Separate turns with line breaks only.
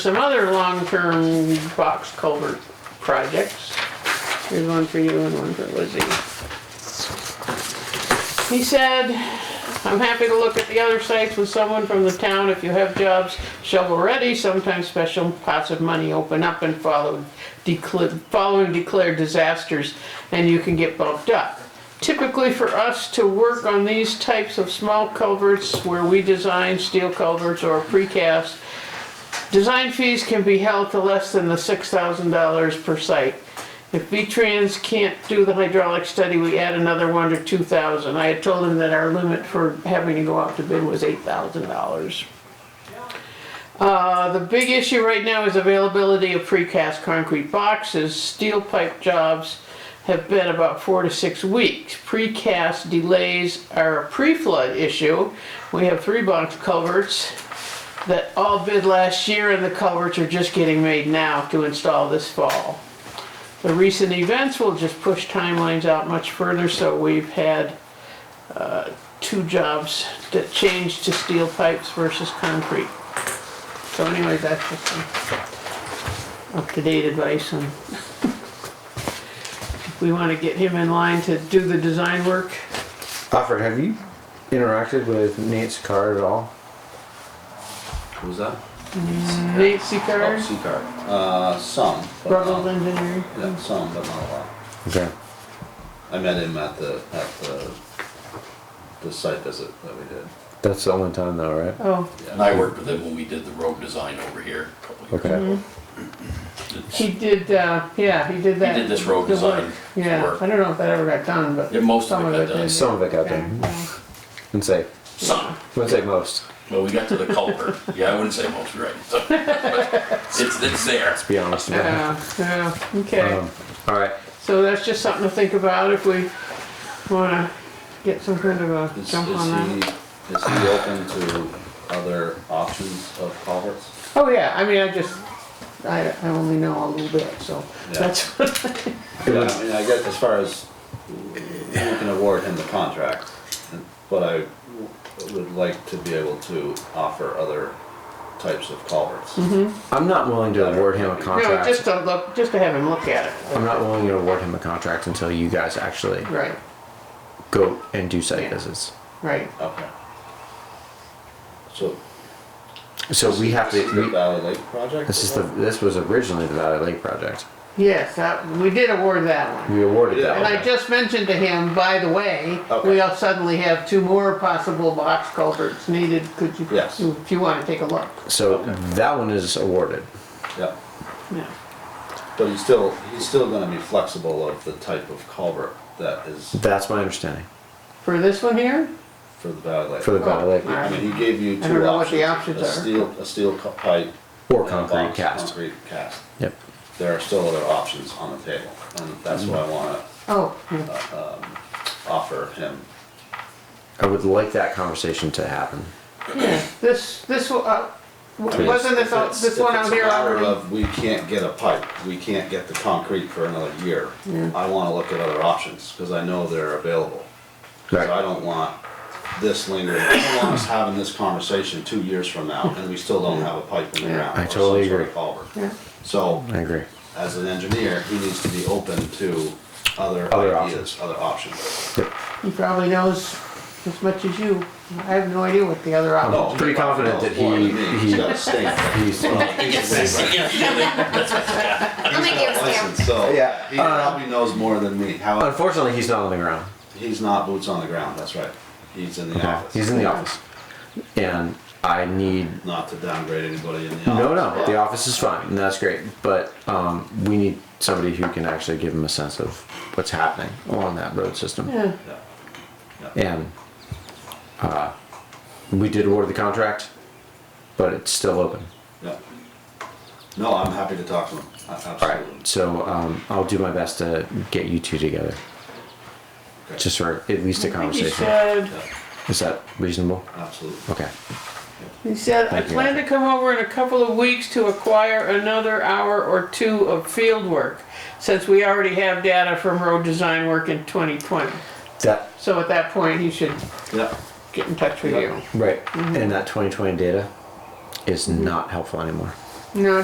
Some other long-term box culvert projects. Here's one for you and one for Lizzie. He said, I'm happy to look at the other sites with someone from the town if you have jobs shovel-ready. Sometimes special pots of money open up and follow, decla- following declared disasters, and you can get bumped up. Typically for us to work on these types of small culverts where we design steel culverts or precast, Design fees can be held to less than the six thousand dollars per site. If V-Trans can't do the hydraulic study, we add another one to two thousand. I had told him that our limit for having to go out to bid was eight thousand dollars. Uh, the big issue right now is availability of precast concrete boxes. Steel pipe jobs have been about four to six weeks. Precast delays are a pre-flood issue. We have three box culverts that all bid last year and the culverts are just getting made now to install this fall. The recent events will just push timelines out much further, so we've had uh, two jobs that changed to steel pipes versus concrete. So anyway, that's just some up-to-date advice on if we want to get him in line to do the design work.
Alfred, have you interacted with Nate Card at all?
Who's that?
Nancy Carr,
Oh, Seacard. Uh, some. but not-
Rubble Engineering.
Yeah, some, but not a lot.
Okay.
I met him at the, at the, the site visit that we did.
That's the only time though, right?
Oh,
And I worked with him when we did the road design over here a couple of years.
Okay.
ago.
He did, uh, yeah, he did that.
did this road
the
design
work. Yeah,
work.
I don't know if that ever got done, but.
Yeah, most of
some
it got done.
did.
Some of it got
Okay,
done.
yeah.
Wouldn't say.
Some,
Wouldn't say most.
well, we got to the culvert. Yeah, I wouldn't say most, right. So, It's, it's there.
Be honest about
Yeah, yeah,
it.
okay.
Um, all right.
So that's just something to think about if we wanna get some kind of a
Is, is
jump on
he,
that.
is he open to other options of culverts?
Oh, yeah, I mean, I just, I, I only know a little bit, so
Yeah.
that's, what-
It
Yeah,
would-
I mean, I guess as far as we can award him the contract, but I would like to be able to offer other types of culverts.
Mm-hmm.
I'm not willing to award him a
no,
contract.
just to look, just to have him look at it,
I'm not willing to award him a contract until you guys actually
right,
go and do site
Yeah.
visits.
right.
Okay. So
So we have
This is the
to. We,
Valley Lake project?
this is the. This was originally the Valley Lake project.
Yes, that, we did award that one.
We awarded
Yeah.
that.
And
one.
I just mentioned to him, by the way, we
Okay.
all suddenly have two more possible box culverts needed, could you,
Yes.
if you wanna take a look?
So
Okay.
that one is awarded.
Yeah,
Yeah.
but he's still, he's still gonna be flexible of the type of culvert that is
That's my understanding
For this one here?
for the Valley Lake.
for the Valley Lake
Oh, all
I
right.
mean, he gave you two
I
options.
don't know what the options
A
are.
steel, a steel cu- pipe.
or
and a
concrete
box
cast.
Concrete cast.
Yep.
There are still other options on the table, and that's what I wanna
Oh, yeah.
offer him.
I would like that conversation to happen.
yeah, this, this, one, uh, w-
Yes.
wasn't this, out-
If it's-
this one out here
If it's a matter
already?
of, we can't get a pipe, we can't get the concrete for another year, I wanna look at other options, cause I know they're available. Cause I
Right.
don't want this lingering, I don't want us having this conversation two years from now, and we still don't have a pipe in the
Yeah.
ground.
I
or some
totally
sort of
agree.
culvert.
Yeah.
So,
I agree.
as an engineer, he needs to be open to other
Other
ideas, other options.
Yep.
He probably knows as much as you, I have no idea what the other option.
No,
pretty confident that
no, more than
he-
me.
he-
He's got a stamp.
he's-
He's
make
got
you
a
a stamp.
license, So,
Yeah,
he
uh,
probably knows more than me, how,
Unfortunately, he's not on the ground.
he's not boots on the ground, that's right, he's in the
Yeah,
office.
He's in the office. And I need,
Not to downgrade anybody in the office.
no, no, the
but-
office is fine, and that's great, but, um, we need somebody who can actually give him a sense of what's happening along that road system.
Yeah,
Yeah.
And, uh, we did award the contract, but it's still open.
Yeah. No, I'm happy to talk to him, A- absolutely.
Alright, so, um, I'll do my best to get you two together,
Okay.
just for at least a
I think he
conversation.
said,
Yeah,
Is that reasonable?
Absolutely.
Okay,
He said, I
Thank you.
plan to come over in a couple of weeks to acquire another hour or two of field work, since we already have data from road design work in 2020.
that,
So at that point, he should
Yeah,
get in touch with you.
right, and that twenty twenty data is not helpful anymore.
No,